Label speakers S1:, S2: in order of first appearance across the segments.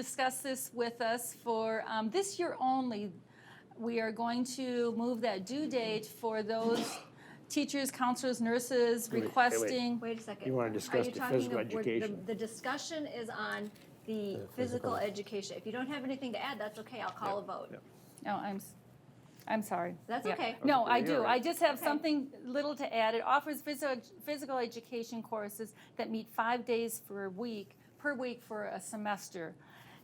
S1: discussed this with us for, um, this year only, we are going to move that due date for those teachers, counselors, nurses
S2: Wait, wait, wait.
S1: requesting.
S3: Wait a second.
S2: You wanna
S3: Are
S2: discuss
S3: you
S2: the
S3: talking
S2: physical
S3: of- we're- the-
S2: education.
S3: The discussion is on the physical education. If you don't have anything to add, that's okay, I'll call a vote.
S1: No, Oh, I'm, s- I'm sorry.
S3: That's
S1: Yeah.
S3: okay.
S1: No, I
S2: you're
S1: do.
S2: right.
S1: I just have
S3: Okay.
S1: something little to add. It offers physical, physical education courses that meet five days for a week, per week for a semester.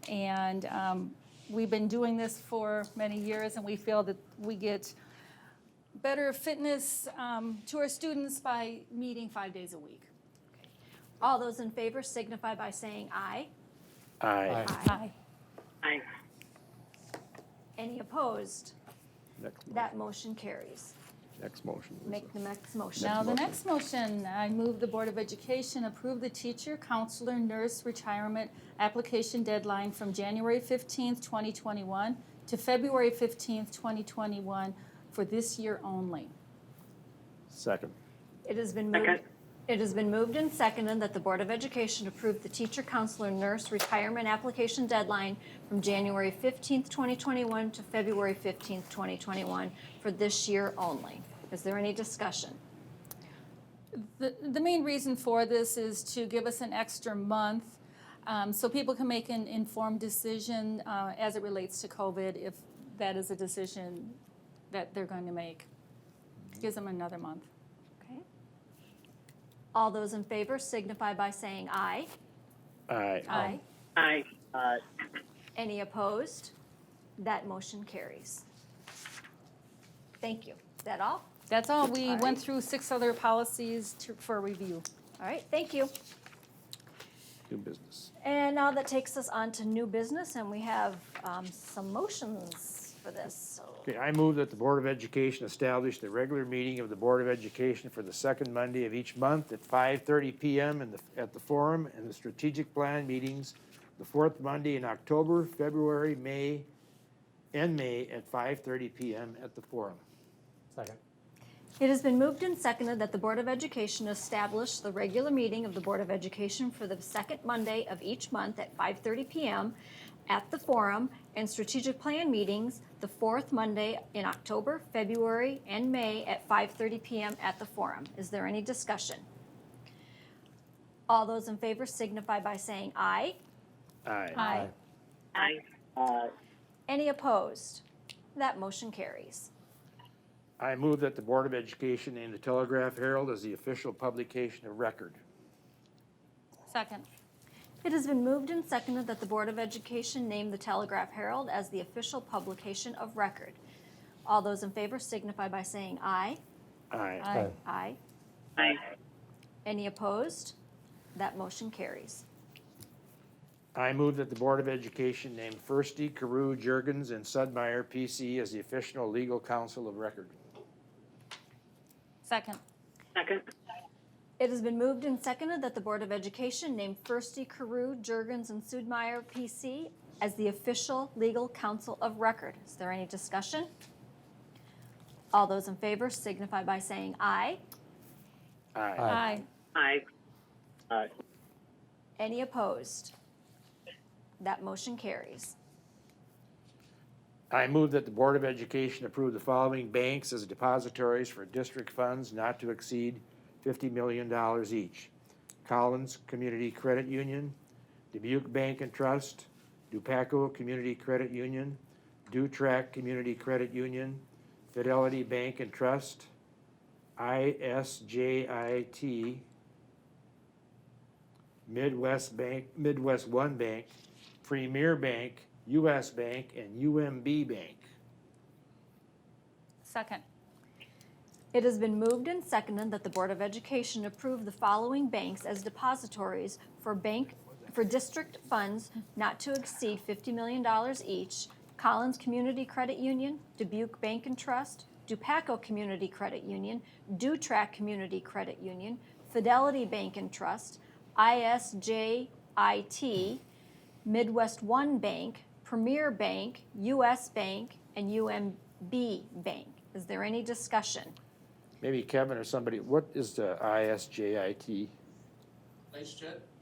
S1: And um, we've been doing this for many years, and we feel that we get better fitness um, to our students by meeting five days a week.
S3: All those in favor signify by saying aye.
S2: Aye.
S1: Aye.
S4: Aye.
S3: Any opposed?
S2: Next, mo-
S3: That motion carries.
S2: next motion. Lisa.
S3: Make the next motion.
S1: Now, the
S2: motion.
S1: next motion, I move the Board of Education approve the teacher, counselor, nurse retirement application deadline from January 15th, 2021 to February 15th, 2021 for this year only.
S2: Second.
S3: It has been
S4: Second.
S3: moved, it has been moved and seconded that the Board of Education approve the teacher, counselor, nurse retirement application deadline from January 15th, 2021 to February 15th, 2021 for this year only. Is there any discussion?
S1: The, the main reason for this is to give us an extra month um, so people can make an informed decision uh, as it relates to COVID if that is a decision that they're going to make. Gives them another month.
S3: Okay. All those in favor signify by saying aye.
S2: Aye.
S3: Aye.
S4: Aye. Aye.
S3: Any opposed? That motion carries. Thank you. Is that all?
S1: That's all. We
S3: All
S1: went
S3: right.
S1: through six other policies to, for review.
S3: All right, thank you.
S2: New business.
S3: And now that takes us on to new business, and we have um, some motions for this. So,
S2: Okay, I move that the Board of Education establish the regular meeting of the Board of Education for the second Monday of each month at five thirty PM in the, at the forum and the strategic plan meetings, the fourth Monday in October, February, May, and May at five thirty PM at the forum.
S5: Second.
S3: It has been moved and seconded that the Board of Education establish the regular meeting of the Board of Education for the second Monday of each month at 5:30 PM at the Forum and strategic plan meetings the fourth Monday in October, February, and May at 5:30 PM at the Forum. Is there any discussion? All those in favor signify by saying aye.
S2: Aye.
S4: Aye. Aye.
S3: Any opposed? That motion carries.
S2: I move that the Board of Education name the Telegraph Herald as the official publication of record.
S1: Second.
S3: It has been moved and seconded that the Board of Education name the Telegraph Herald as the official publication of record. All those in favor signify by saying aye.
S2: Aye.
S1: Aye.
S3: Aye.
S4: Aye.
S3: Any opposed? That motion carries.
S2: I move that the Board of Education name Firsty, Carew, Jurgens, and Sudmeyer, PC, as the official legal counsel of record.
S1: Second.
S4: Second.
S3: It has been moved and seconded that the Board of Education name Firsty, Carew, Jurgens, and Sudmeyer, PC, as the official legal counsel of record. Is there any discussion? All those in favor signify by saying aye.
S2: Aye.
S5: Aye.
S1: Aye.
S4: Aye. Aye.
S3: Any opposed? That motion carries.
S2: I move that the Board of Education approve the following banks as depositories for district funds not to exceed $50 million each. Collins Community Credit Union, Dubuque Bank and Trust, DuPaco Community Credit Union, DuTrack Community Credit Union, Fidelity Bank and Trust, ISJIT, Midwest Bank, Midwest One Bank, Premier Bank, US Bank, and UMB Bank.
S1: Second.
S3: It has been moved and seconded that the Board of Education approve the following banks as depositories for bank, for district funds not to exceed $50 million each, Collins Community Credit Union, Dubuque Bank and Trust, DuPaco Community Credit Union, DuTrack Community Credit Union, Fidelity Bank and Trust, ISJIT, Midwest One Bank, Premier Bank, US Bank, and UMB Bank. Is there any discussion?
S2: Maybe Kevin or somebody, what is the ISJIT?
S6: Nice chat.